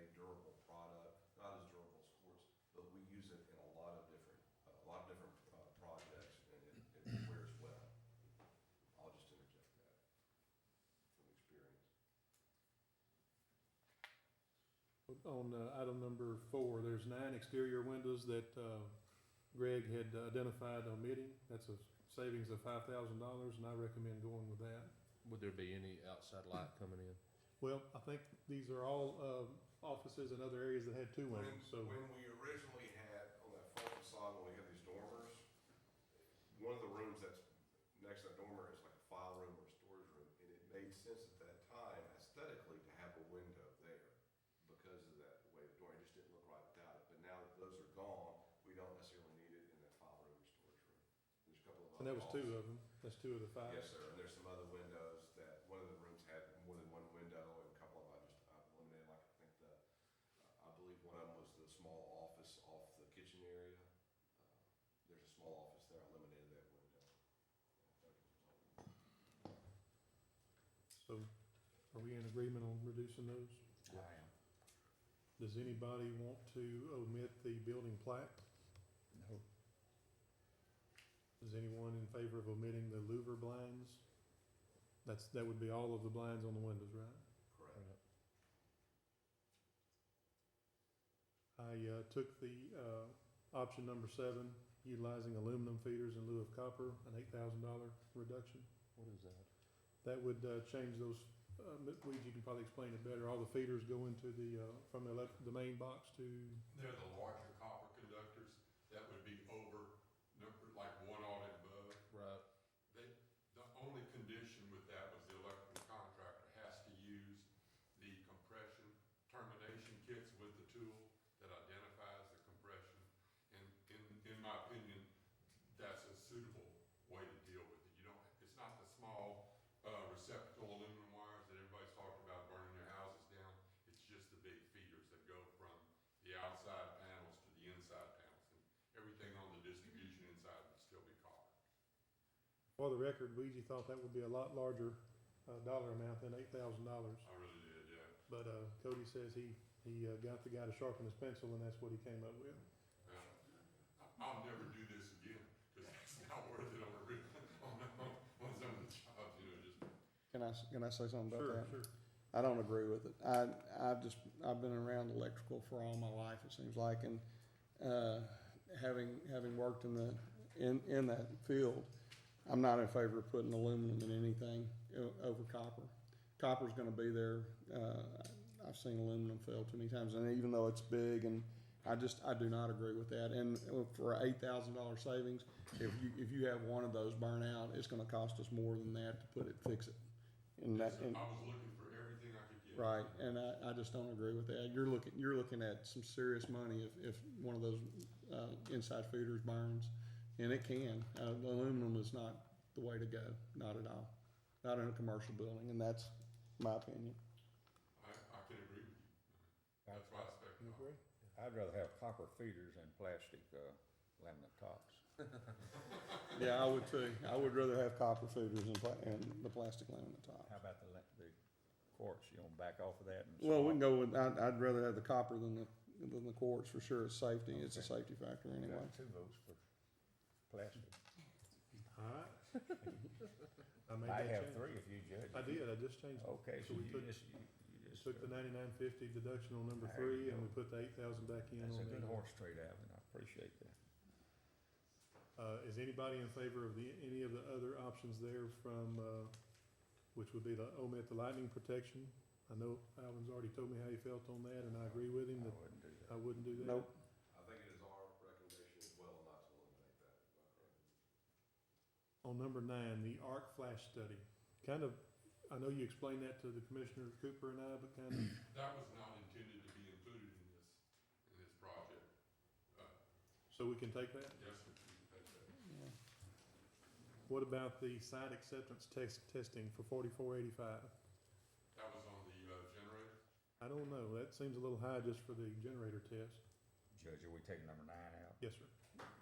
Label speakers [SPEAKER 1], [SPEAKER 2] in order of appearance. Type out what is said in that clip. [SPEAKER 1] uh,
[SPEAKER 2] on uh, item number four, there's nine exterior windows that uh, Greg had identified omitting. That's a savings of five thousand dollars, and I recommend going with that.
[SPEAKER 3] Would there be any outside light coming in?
[SPEAKER 2] Well, I think these are all uh, offices and other areas that had two
[SPEAKER 1] When,
[SPEAKER 2] windows, so.
[SPEAKER 1] when we originally had, on that front facade, when we had these dormers, one of the rooms that's next to that dormer is like a file room or a storage room, and it made sense at that time aesthetically to have a window there because of that way the dormer, it just didn't look right without it, but now that those are gone, we don't necessarily need it in that file room or storage room. There's a couple of.
[SPEAKER 2] And that was two
[SPEAKER 1] oddballs.
[SPEAKER 2] uh, of them. That's two of the five.
[SPEAKER 1] Yes, sir, and there's some other windows that, one of the rooms had more than one window, and a couple of them I just uh, eliminated, like, I think the, uh, I believe one of them was the small office off the kitchen area. Uh, There's a small office there, I eliminated that window.
[SPEAKER 2] So are we in agreement on reducing those?
[SPEAKER 4] I am.
[SPEAKER 2] Does anybody want to omit the building plaque?
[SPEAKER 4] No.
[SPEAKER 2] Is anyone in favor of omitting the louver blinds? That's, that would be all of the blinds on the windows, right?
[SPEAKER 1] Correct.
[SPEAKER 2] I, uh, took the, uh, option number seven, utilizing aluminum feeders in lieu of copper, an eight thousand dollar reduction.
[SPEAKER 3] What is that?
[SPEAKER 2] That would, uh, change those, uh, Weege, you can probably explain it better. All the feeders go into the, uh, from the elect, the main box to,
[SPEAKER 5] They're the larger copper conductors, that would be over, number, like one audit above.
[SPEAKER 3] Right.
[SPEAKER 5] They, the only condition with that was the electrical contractor has to use the compression termination kits with the tool that identifies the compression. And in, in my opinion, that's a suitable way to deal with it. You don't, it's not the small, uh, receptacle aluminum wires that everybody's talked about burning their houses down. It's just the big feeders that go from the outside panels to the inside panels. And everything on the distribution inside would still be copper.
[SPEAKER 2] for the record, Weege thought that would be a lot larger, uh, dollar amount than eight thousand dollars.
[SPEAKER 5] I really did, yeah.
[SPEAKER 2] But uh, Cody says he, he uh, got the guy to sharpen his pencil, and that's what he came up with.
[SPEAKER 5] Yeah. I- I'll never do this again, because it's not worth it on a real, on, on, on some of the jobs, you know, just.
[SPEAKER 4] Can I, s- can I say something about that?
[SPEAKER 2] sure.
[SPEAKER 4] I don't agree with it. I, I've just, I've been around electrical for all my life, it seems like, and, uh, having, having worked in the, in, in that field, I'm not in favor of putting aluminum in anything o- over copper. Copper's gonna be there. Uh, I've seen aluminum fail too many times, and even though it's big and I just, I do not agree with that. And for eight thousand dollar savings, if you, if you have one of those burn out, it's gonna cost us more than that to put it, fix it. And that, and,
[SPEAKER 5] I was looking for everything I could get.
[SPEAKER 4] Right, and I, I just don't agree with that. You're looking, you're looking at some serious money if, if one of those, uh, inside feeders burns. And it can, uh, aluminum is not the way to go, not at all, not in a commercial building, and that's my opinion.
[SPEAKER 5] I, I can agree with you. That's why I expect.
[SPEAKER 2] You agree?
[SPEAKER 6] I'd rather have copper feeders than plastic, uh, laminate tops.
[SPEAKER 4] Yeah, I would too. I would rather have copper feeders and pla- and the plastic laminate
[SPEAKER 6] How
[SPEAKER 4] top.
[SPEAKER 6] about the, la- the quartz, you gonna back off of that and?
[SPEAKER 4] Well, we can
[SPEAKER 6] swap?
[SPEAKER 4] go with, I'd, I'd rather have the copper than the, than the quartz for sure. It's safety, it's a safety factor anyway.
[SPEAKER 6] Got Two votes for plastic.
[SPEAKER 2] All right. I made
[SPEAKER 6] I
[SPEAKER 2] that
[SPEAKER 6] have
[SPEAKER 2] change.
[SPEAKER 6] three if you judge.
[SPEAKER 2] I did, I just changed, it.
[SPEAKER 6] Okay, so
[SPEAKER 2] So
[SPEAKER 6] you
[SPEAKER 2] we took-
[SPEAKER 6] just, you you just.
[SPEAKER 2] took the
[SPEAKER 6] uh,
[SPEAKER 2] ninety-nine fifty deduction on number
[SPEAKER 6] There you
[SPEAKER 2] three, and
[SPEAKER 6] go.
[SPEAKER 2] we put the eight thousand back in
[SPEAKER 6] That's a
[SPEAKER 2] on
[SPEAKER 6] good
[SPEAKER 2] the.
[SPEAKER 6] horse trade, Alvin, I appreciate that.
[SPEAKER 2] Uh, is anybody in favor of the, any of the other options there from, uh, which would be the omit the lightning protection? I know Alvin's already told me how he felt on that, and I agree with him
[SPEAKER 6] I
[SPEAKER 2] that
[SPEAKER 6] wouldn't do
[SPEAKER 2] I
[SPEAKER 6] that.
[SPEAKER 2] wouldn't do that.
[SPEAKER 4] Nope.
[SPEAKER 1] I think it is our recommendation as well not to eliminate that. if I'm correct.
[SPEAKER 2] On number nine, the arc flash study. Kind of, I know you explained that to the Commissioner Cooper and I, but kind of,
[SPEAKER 5] That was not intended to be included in this, in this project.
[SPEAKER 2] so we can take that?
[SPEAKER 5] Yes, sir, you can take that.
[SPEAKER 4] Yeah.
[SPEAKER 2] What about the site acceptance test, testing for forty-four eighty-five?
[SPEAKER 5] That was on the, uh, generator.
[SPEAKER 2] I don't know, that seems a little high just for the generator test.
[SPEAKER 6] Judge, are we taking number nine out?
[SPEAKER 2] Yes, sir.